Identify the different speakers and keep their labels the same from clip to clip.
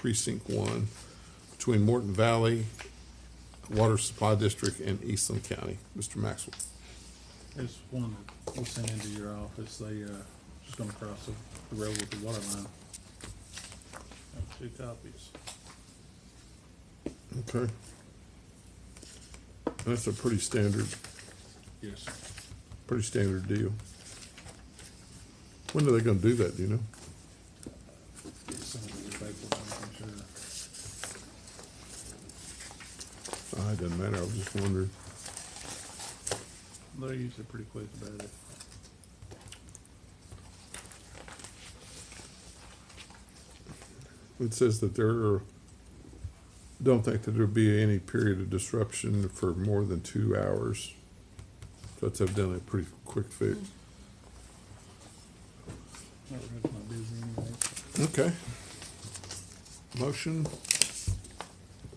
Speaker 1: Precinct One between Morton Valley Water Supply District and Eastland County. Mr. Maxwell.
Speaker 2: There's one that we sent into your office, they, uh, just gonna cross the the road with the water line. Have Two copies.
Speaker 1: Okay. That's a pretty standard,
Speaker 2: Yes.
Speaker 1: pretty standard deal. When are they gonna do that, do you know?
Speaker 2: It's some of the paperwork, I'm sure.
Speaker 1: Ah, It doesn't matter, I was just wondering.
Speaker 2: They're usually pretty quick about it.
Speaker 1: It says that there are, don't think that there'll be any period of disruption for more than two hours. So That's evidently a pretty quick fix.
Speaker 2: Not really my busy anyway.
Speaker 1: Okay. Motion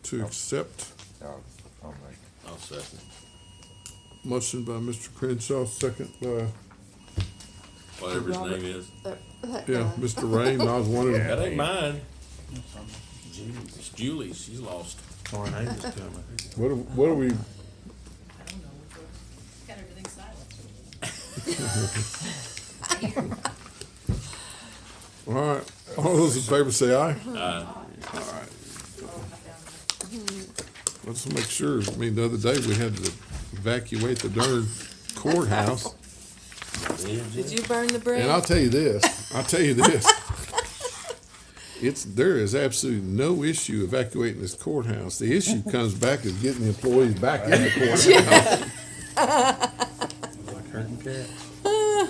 Speaker 1: to accept,
Speaker 3: I'll, I'll make. I'll second.
Speaker 1: motion by Mr. Crenshaw, second by,
Speaker 3: Whatever his
Speaker 4: Robert.
Speaker 3: name is.
Speaker 4: That, that
Speaker 1: yeah,
Speaker 4: guy.
Speaker 1: Mr. Rain, I was
Speaker 3: That
Speaker 1: wondering,
Speaker 3: ain't mine.
Speaker 2: That's on the-
Speaker 3: It's Julie. She's lost.
Speaker 5: Tornadoes coming.
Speaker 1: what are, what are we,
Speaker 6: I don't know. We've Got everything silent.
Speaker 1: all right, all those in favor say aye.
Speaker 3: Uh,
Speaker 1: Let's make sure, I mean, the other day we had to evacuate the darn courthouse.
Speaker 4: Did you burn the bridge?
Speaker 1: And I'll tell you this, I'll tell you this. It's, there is absolutely no issue evacuating this courthouse. The issue comes back is getting the employees back in the courthouse.
Speaker 2: Like herding cats.
Speaker 6: Two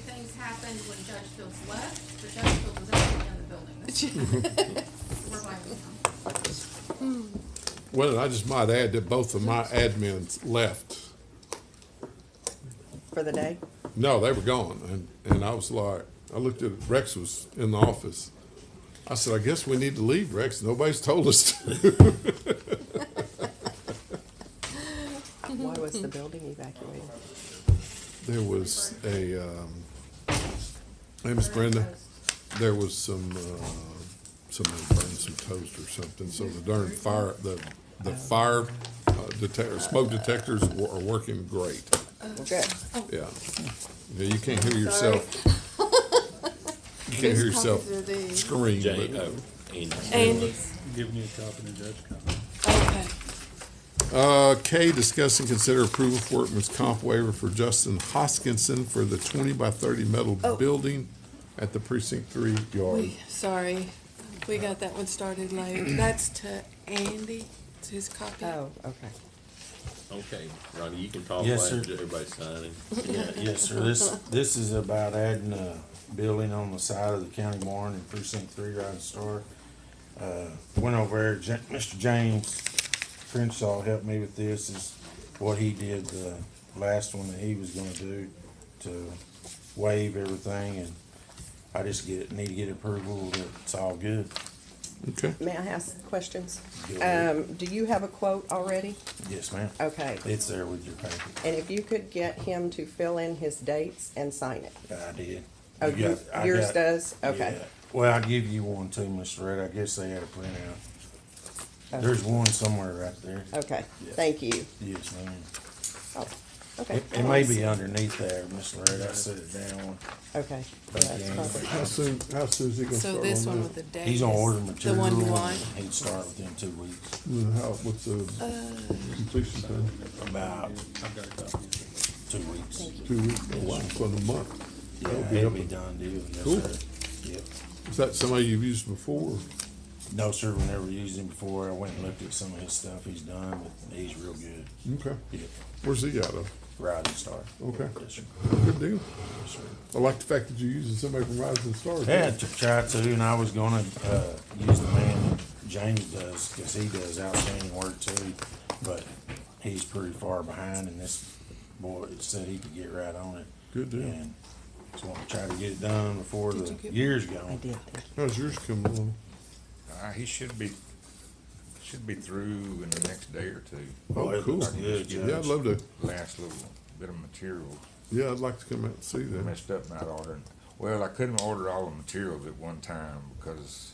Speaker 6: things happened when Judge Fields left, but Judge Fields was actually in the building. We're blaming him.
Speaker 1: Well, I just might add that both of my admins left.
Speaker 7: for the day.
Speaker 1: No, they were gone, and, and I was like, I looked at, Rex was in the office. I said, I guess we need to leave, Rex, nobody's told us to.
Speaker 7: Why was the building evacuated?
Speaker 1: There was a, um, hey, Miss Brenda, there was some, uh, somebody burned some toast or something, so the darn fire, the, the fire uh, detector, smoke detectors wa- are working great,
Speaker 7: Okay.
Speaker 1: yeah. Yeah, you can't hear yourself. You can't hear yourself scream,
Speaker 3: Jane.
Speaker 1: but,
Speaker 3: Oh, Andy.
Speaker 4: Andy's.
Speaker 2: Giving you a copy to Judge Conley.
Speaker 4: Okay.
Speaker 1: uh, K, discuss and consider approval for workman's comp waiver for Justin Hoskinson for the twenty by thirty metal
Speaker 4: Oh.
Speaker 1: building at the precinct three yard.
Speaker 4: We, sorry. We got that one started late. That's to Andy. It's his copy.
Speaker 7: Oh, okay.
Speaker 3: Okay, Ronnie, you can talk.
Speaker 5: Yes,
Speaker 3: while
Speaker 5: sir.
Speaker 3: Everybody's signing.
Speaker 5: Yeah, yes, sir. This, this is about adding a building on the side of the county barn in precinct three, Rising Star. Uh, went over there, Ja- Mr. James Crenshaw helped me with this, is what he did the last one that he was gonna do to waive everything, and I just get, need to get approval that it's all good.
Speaker 1: Okay.
Speaker 7: May I ask questions?
Speaker 5: Go ahead.
Speaker 7: Um, do you have a quote already?
Speaker 5: Yes, ma'am.
Speaker 7: Okay.
Speaker 5: It's there with your paper.
Speaker 7: And if you could get him to fill in his dates and sign it.
Speaker 5: I did.
Speaker 7: Oh,
Speaker 5: You
Speaker 7: you-
Speaker 5: got- I
Speaker 7: yours
Speaker 5: got-
Speaker 7: does? Okay.
Speaker 5: Yeah. Well, I'll give you one too, Mr. Red. I guess they had a printout.
Speaker 7: Okay.
Speaker 5: There's one somewhere right there.
Speaker 7: Okay,
Speaker 5: Yeah.
Speaker 7: thank you.
Speaker 5: Yes, ma'am.
Speaker 7: Oh, okay.
Speaker 5: It, it may be underneath there, Mr. Red. I set it down.
Speaker 7: Okay. That's
Speaker 5: you.
Speaker 7: perfect.
Speaker 1: How soon, how soon is he gonna start
Speaker 4: So
Speaker 1: on
Speaker 4: this one
Speaker 1: that?
Speaker 4: with the date.
Speaker 5: He's gonna
Speaker 4: is
Speaker 5: order material.
Speaker 4: The one you
Speaker 5: and
Speaker 4: want.
Speaker 5: He'd start within two weeks.
Speaker 1: Well, How, what's the
Speaker 4: Uh,
Speaker 1: completion time?
Speaker 5: About
Speaker 2: I've got a copy.
Speaker 5: two weeks.
Speaker 1: Two weeks,
Speaker 5: Oh,
Speaker 1: a month, for the month.
Speaker 5: Yeah,
Speaker 1: be
Speaker 5: it'll
Speaker 1: up
Speaker 5: be
Speaker 1: in-
Speaker 5: done deal. Yes,
Speaker 1: Cool.
Speaker 5: sir. Yep.
Speaker 1: Is that somebody you've used before?
Speaker 5: No, sir. We never used him before. I went and looked at some of his stuff he's done, but he's real good.
Speaker 1: Okay.
Speaker 5: Yep.
Speaker 1: Where's he out of?
Speaker 5: Rising Star.
Speaker 1: Mm. Okay.
Speaker 5: Yes, sir.
Speaker 1: Good deal.
Speaker 5: Yes, sir.
Speaker 1: I like the fact that you're using somebody from Rising Stars.
Speaker 5: Yeah, to try to, and I was gonna, uh, use the man that James does, cause he does outstanding work too, but he's pretty far behind and this boy said he could get right on it.
Speaker 1: Good deal.
Speaker 5: And So I'm trying to get it done before
Speaker 4: Did
Speaker 5: the
Speaker 4: you get-
Speaker 5: year's gone.
Speaker 7: I did. thank
Speaker 1: How's yours coming along?
Speaker 8: Uh, he should be, should be through in the next day or two.
Speaker 5: Well,
Speaker 1: Oh,
Speaker 5: it
Speaker 1: cool.
Speaker 5: looks good,
Speaker 1: Yeah, I'd
Speaker 5: Judge.
Speaker 1: love to,
Speaker 8: Last little bit of material
Speaker 1: yeah, I'd like to come out and see
Speaker 8: I
Speaker 1: that.
Speaker 8: messed up not ordering. Well, I couldn't order all the materials at one time because